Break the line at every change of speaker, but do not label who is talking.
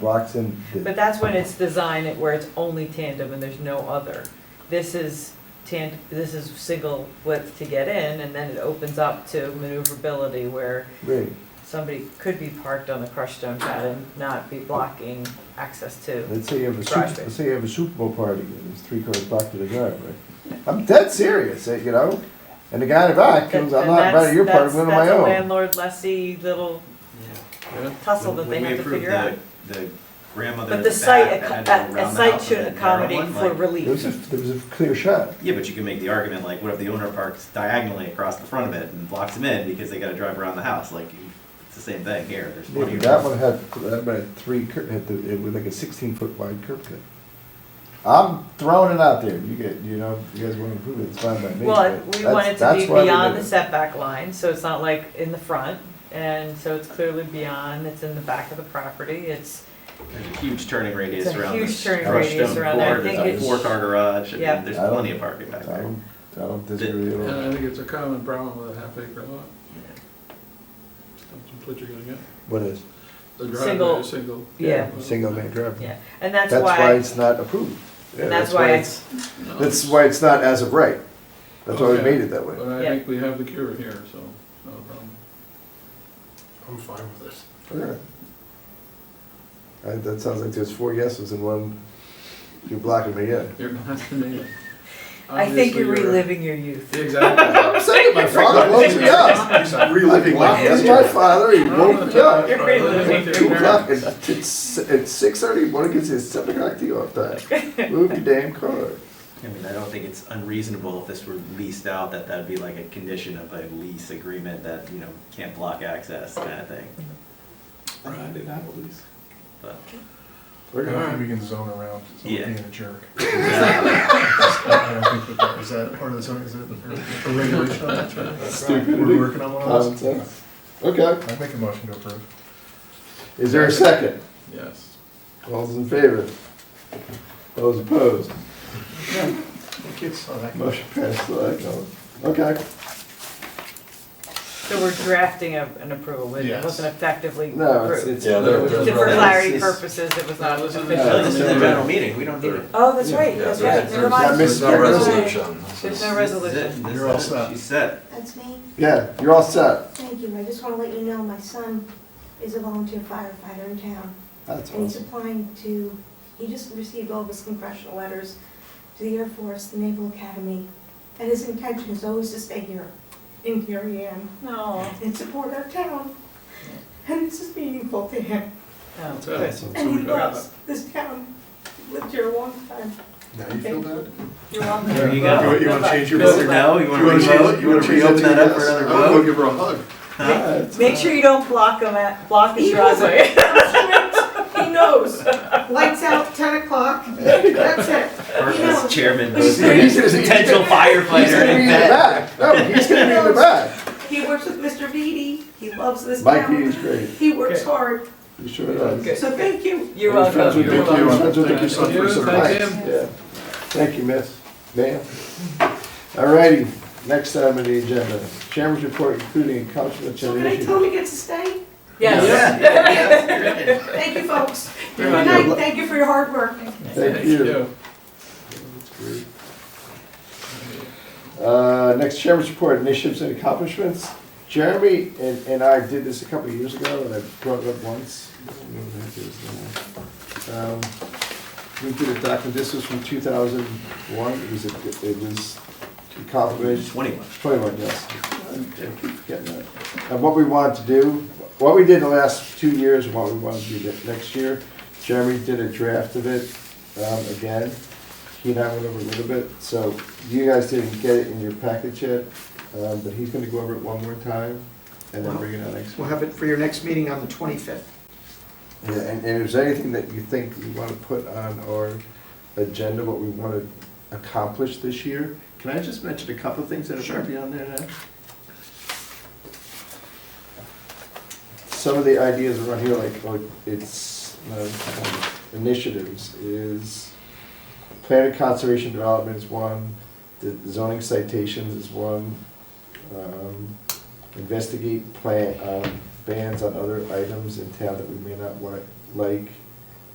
Roxon,
But that's when it's designed it where it's only tandem and there's no other. This is tan, this is single width to get in and then it opens up to maneuverability where
right,
somebody could be parked on the crushed stone pad and not be blocking access to.
let's say you have a
Garage
Super,
space.
let's say you have a Super Bowl party, and there's three cars blocked to the driveway. I'm dead serious, eh, you know, and the guy in the back
And
comes, I'm not invited
that's-
to your party,
that's-
I'm going to my
That's a
own.
landlord lessee little tussle that they
When we
have to
approved
figure out.
The the grandmother
But
in
the
the
site,
back
acc-
that had
a, a
to go around the
site
house with
should
that narrow
accommodate for
one, like-
There was a,
relief.
there was a clear shot,
Yeah, but you can make the argument like, what if the owner parks diagonally across the front of it and blocks him in because they gotta drive around the house, like, you- it's the same thing here, there's plenty
Yeah,
of.
that
room.
one had, that one had three, cur- had the, it was like a sixteen foot wide curb cut. I'm throwing it out there, you get, you know, you guys want to prove it, it's fine by me.
Well,
but
we
that's-
want it to
that's
be
why we
beyond
did
the
it.
setback line, so it's not like in the front. And so it's clearly beyond, it's in the back of the property, it's,
There's a huge turning radius
It's a
around
huge
this
turning
crushed
radius
stone
around there. I
floor,
think
there's
it's-
a four car garage,
Yeah.
and there's
I don't-
plenty of parking back
I
there.
don't, I don't disagree at
And
all.
I think it's a common problem with a half acre lot. That's what you're gonna get.
What is,
The
Single-
driveway is single.
yeah,
single lane driveway?
yeah. And that's
That's why
why,
it's not approved. Yeah,
And that's why
it's-
No.
That's why it's not as of right. That's why we
Okay.
made it that way.
But I
Yeah.
think we have the cure here, so, no problem. I'm fine with this.
Okay. Uh, That sounds like there's four yeses and one, you're blocking me in.
You're not the native.
I think you're
Obviously,
reliving your youth.
Exactly.
I'm saying, my father woke me up.
reliving
Like, That's my father, he woke me up.
You're reliving
Two
your
o'clock, and it's, it's six thirty, one against his seven o'clock tee off time. Move your damn car.
I mean, I don't think it's unreasonable if this were leased out, that that'd be like a condition of a lease agreement that, you know, can't block access, kind of thing.
Right.
But,
We're
I
gonna-
think we can zone around
Yeah.
someone being a jerk.
Exactly.
I don't think that- Is that part of the zoning, is it a regulation? on that?
Stupid.
We're working on one
Common
of
sense.
those.
Okay,
I make a motion to approve.
is there a second?
Yes.
All those in favor? Those opposed?
Kids saw Oh, that.
Motion passed, so I go. Okay,
So we're drafting a- an approval, it
Yes.
wasn't effectively
no, it's,
approved.
it's.
Yeah, they're-
For
they're-
clarity
it's- it's-
purposes, it was not
No, this is-
Yeah,
official.
This is a general meeting, we don't need it.
Oh, that's right,
Yeah,
that's right,
there's-
never
Yeah,
mind.
Miss-
There's no
Never mind.
resolution. This
There's
is-
no resolution.
This is it.
You're all set.
She's set.
That's me.
Yeah, you're all set.
Thank you. I just want to let you know, my son is a volunteer firefighter in town.
That's
And he's
awesome.
applying to, he just received all of his congressional letters to the Air Force, the Naval Academy. And his intention is always to stay here, in Darien,
No.
and support our town. And this is meaningful to him.
No.
That's it.
Awesome.
And
we
he
got it.
loves this town. He Lived here a long time.
Now you feel bad?
You're welcome.
There you go.
You wanna change your
Mr.
vote?
No, you wanna
wanna change-
revote? You wanna
change that
reopen
to
that up
yes?
for another
I'm gonna
vote?
give her a hug.
Make sure you don't block them at, block his driveway. He knows.
Lights out, 10 o'clock. That's it.
Or
Yeah.
as chairman,
He's gonna- he's gonna- he's gonna-
potential
He's
firefighter
gonna be
in
in the
bed.
back. No, he's gonna be in the back.
He works with Mr. Beatty. He loves this
Mike
town.
Beatty's great.
He works hard.
He sure does.
Good.
So thank you.
You're
He's friends
welcome.
with
You're
Dick Hughes,
welcome.
friends with Dick Hughes
Thank you,
for some
thank
advice.
him.
Yeah. Thank you, miss. Ma'am. All righty, next item on the agenda, chairman's report including accomplishments
So
and
can I tell
issues.
him he gets to stay?
Yes.
Thank you, folks.
You're
Good
welcome.
night, thank you for your hard work.
Thank you. Uh, next chairman's report, initiatives and accomplishments. Jeremy and, and I did this a couple of years ago, and I brought it up once. I don't know what that is now. Um, We did a document, this was from two thousand one, it was, a- it was accomplished.
Twenty-one.
Twenty-one, yes. I keep getting that. And what we wanted to do, what we did the last two years, and what we want to do ne- next year, Jeremy did a draft of it, um, again. He and I went over a little bit, so you guys didn't get it in your package yet, um, but he's gonna go over it one more time and then bring it out next
We'll
week.
have it for your next meeting on the 25th.
Yeah, And, and if there's anything that you think you wanna put on our agenda, what we wanna accomplish this year, can I just mention a couple of things that are
Sure.
be on there now? some of the ideas around here, like, like it's, uh, initiatives is, planning conservation development is one, the zoning citations is one, um, investigate plan, um, bans on other items in town that we may not like, like,